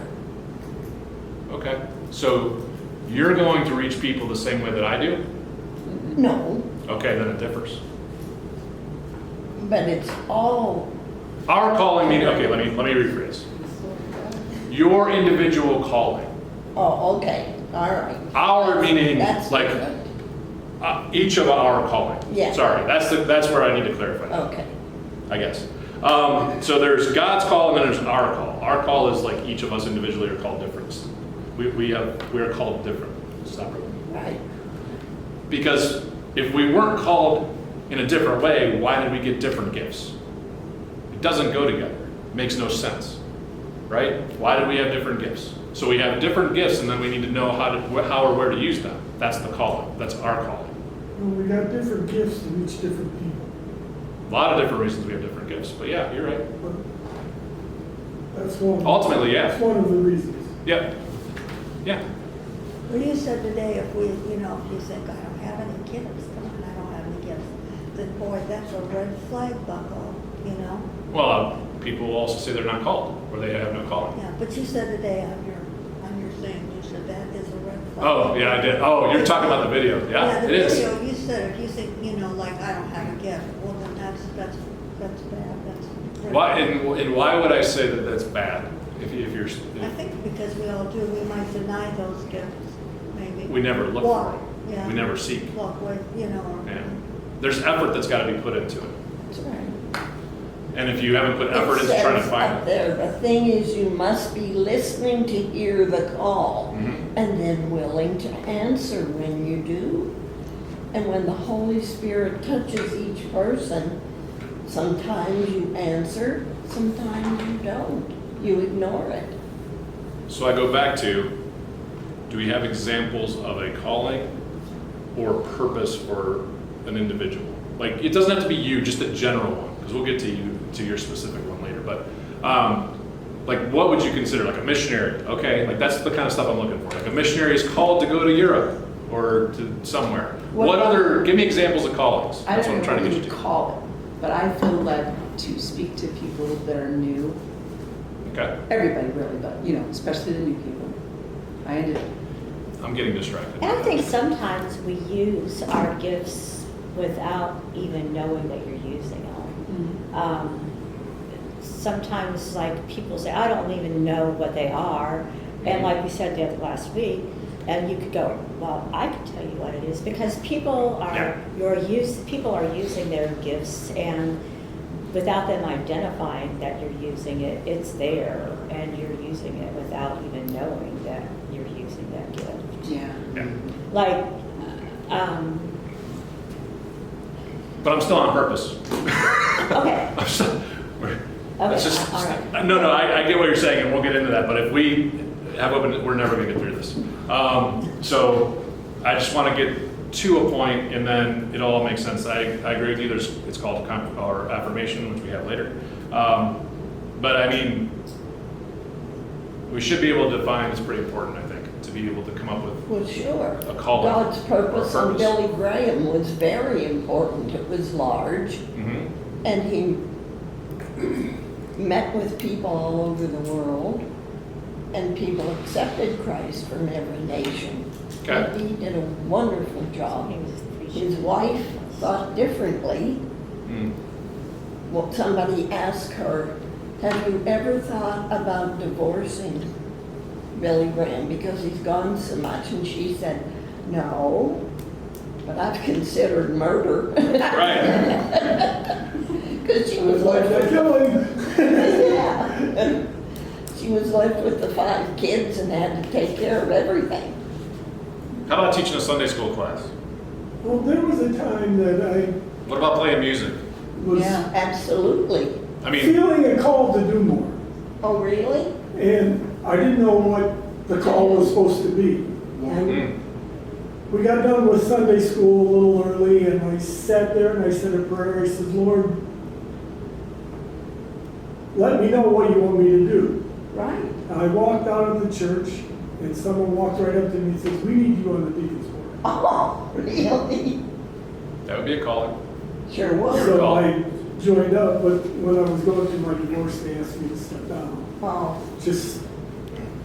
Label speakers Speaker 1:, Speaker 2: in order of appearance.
Speaker 1: Okay, so you're going to reach people the same way that I do?
Speaker 2: No,
Speaker 1: Okay, then it differs.
Speaker 2: but it's all,
Speaker 1: Our calling meeting, okay, let me, let me rephrase. Your individual calling,
Speaker 2: oh, okay, all right.
Speaker 1: our meaning,
Speaker 2: That's
Speaker 1: like,
Speaker 2: different.
Speaker 1: uh, each of our calling.
Speaker 2: Yeah. Oh.
Speaker 1: Sorry, that's the, that's where I need to clarify that,
Speaker 2: Okay,
Speaker 1: I guess. Um, so there's God's call and then there's our call. Our call is like each of us individually are called different. We, we have, we are called different, separate.
Speaker 2: right,
Speaker 1: Because if we weren't called in a different way, why did we get different gifts? It doesn't go together. It makes no sense, right? Why did we have different gifts? So we have different gifts, and then we need to know how to wh- how or where to use them. That's the calling. That's our calling.
Speaker 3: Well, we got different gifts to reach different people,
Speaker 1: A lot of different reasons we have different gifts, but yeah, you're right.
Speaker 3: but that's one.
Speaker 1: Ultimately, yeah.
Speaker 3: That's one of the reasons.
Speaker 1: Yep. Yeah.
Speaker 4: Well, you said today if we, you know, if you think, I don't have any gifts, come on, I don't have any gifts, then boy, that's a red flag buckle, you know?
Speaker 1: Well, uh, people also say they're not called, or they have no calling.
Speaker 4: Yeah, but you said today on your, on your thing, you said that is a red flag.
Speaker 1: Oh, yeah, I did. Oh, you're talking about the video. Yeah,
Speaker 4: the
Speaker 1: it is.
Speaker 4: video, You said if you think, you know, like, I don't have a gift, well, then that's, that's, that's bad, that's. red
Speaker 1: Why
Speaker 4: flag.
Speaker 1: and, and why would I say that that's bad? If, you- if you're, if-
Speaker 4: I think because we all do, we might deny those gifts, maybe.
Speaker 1: We never look for
Speaker 4: Walk,
Speaker 1: them.
Speaker 4: yeah.
Speaker 1: We never seek.
Speaker 4: Walk with, you know,
Speaker 1: Yeah.
Speaker 4: or.
Speaker 1: There's effort that's got to be put into it.
Speaker 2: that's right.
Speaker 1: And if you haven't put effort
Speaker 2: It
Speaker 1: into trying to
Speaker 2: says up
Speaker 1: find it.
Speaker 2: there, the thing is, you must be listening to hear the call
Speaker 1: Mhm.
Speaker 2: and then willing to answer when you do. And when the Holy Spirit touches each person, sometimes you answer, sometimes you don't. You ignore it.
Speaker 1: So I go back to, do we have examples of a calling or purpose for an individual? Like, it doesn't have to be you, just a general one, because we'll get to you, to your specific one later, but, um, like, what would you consider, like a missionary, okay? Like, that's the kind of stuff I'm looking for. Like, a missionary is called to go to Europe or to somewhere.
Speaker 5: What-
Speaker 1: What other, give me examples of callings.
Speaker 5: I
Speaker 1: That's
Speaker 5: don't
Speaker 1: what I'm
Speaker 5: know
Speaker 1: trying to
Speaker 5: what
Speaker 1: get you
Speaker 5: you
Speaker 1: to.
Speaker 5: call it, but I feel led to speak to people that are new,
Speaker 1: Okay,
Speaker 5: everybody really, but, you know, especially the new people. I did,
Speaker 1: I'm getting distracted.
Speaker 6: And I think sometimes we use our gifts without even knowing that you're using them. Um, Sometimes, like, people say, I don't even know what they are. And like we said the other last week, and you could go, well, I can tell you what it is, because people
Speaker 1: Yeah.
Speaker 6: are, your use, people are using their gifts, and without them identifying that you're using it, it's there, and you're using it without even knowing that you're using that gift
Speaker 5: yeah.
Speaker 1: Yeah.
Speaker 6: like, um,
Speaker 1: But I'm still on purpose.
Speaker 6: okay,
Speaker 1: I'm so- we're- That's
Speaker 6: Okay,
Speaker 1: just,
Speaker 6: all right.
Speaker 1: no, no, I, I get what you're saying, and we'll get into that, but if we have open, we're never gonna get through this. Um, so, I just wanna get to a point, and then it all makes sense. I, I agree with you, there's, it's called con, or affirmation, which we have later. Um, but I mean, we should be able to define, it's pretty important, I think, to be able to come up with
Speaker 2: Well, sure.
Speaker 1: A calling
Speaker 2: God's
Speaker 1: or a
Speaker 2: purpose on
Speaker 1: purpose.
Speaker 2: Billy Graham was very important. It was large,
Speaker 1: Mhm.
Speaker 2: and he met with people all over the world, and people accepted Christ from every nation.
Speaker 1: Okay.
Speaker 2: And he did a wonderful job.
Speaker 6: Oh, he was appreciative.
Speaker 2: His wife thought differently.
Speaker 1: Mm.
Speaker 2: Well, somebody asked her, "Have you ever thought about divorcing Billy Graham because he's gone so much?" And she said, "No, but I've considered murder."
Speaker 1: Right,
Speaker 2: Because she
Speaker 3: I was
Speaker 2: was
Speaker 3: like,
Speaker 2: left
Speaker 3: I
Speaker 2: with,
Speaker 3: tell him,
Speaker 2: yeah. She was left with the five kids and had to take care of everything.
Speaker 1: how about teaching a Sunday school class?
Speaker 3: well, there was a time that I
Speaker 1: What about playing music?
Speaker 3: was
Speaker 5: Yeah.
Speaker 2: Absolutely.
Speaker 1: I mean,
Speaker 3: feeling a call to do more,
Speaker 2: Oh, really?
Speaker 3: and I didn't know what the call was supposed to be.
Speaker 2: Yeah.
Speaker 1: mm,
Speaker 3: We got done with Sunday school a little early, and I sat there and I said a prayer. I said, Lord, let me know what you want me to do.
Speaker 2: Right.
Speaker 3: And I walked out of the church, and someone walked right up to me and says, "We need you on the deacon's board."
Speaker 2: Oh, really?
Speaker 1: that would be a calling.
Speaker 2: Sure was.
Speaker 3: So I joined up, but when I was going through my divorce, they asked me to step down.
Speaker 2: Oh,
Speaker 3: Just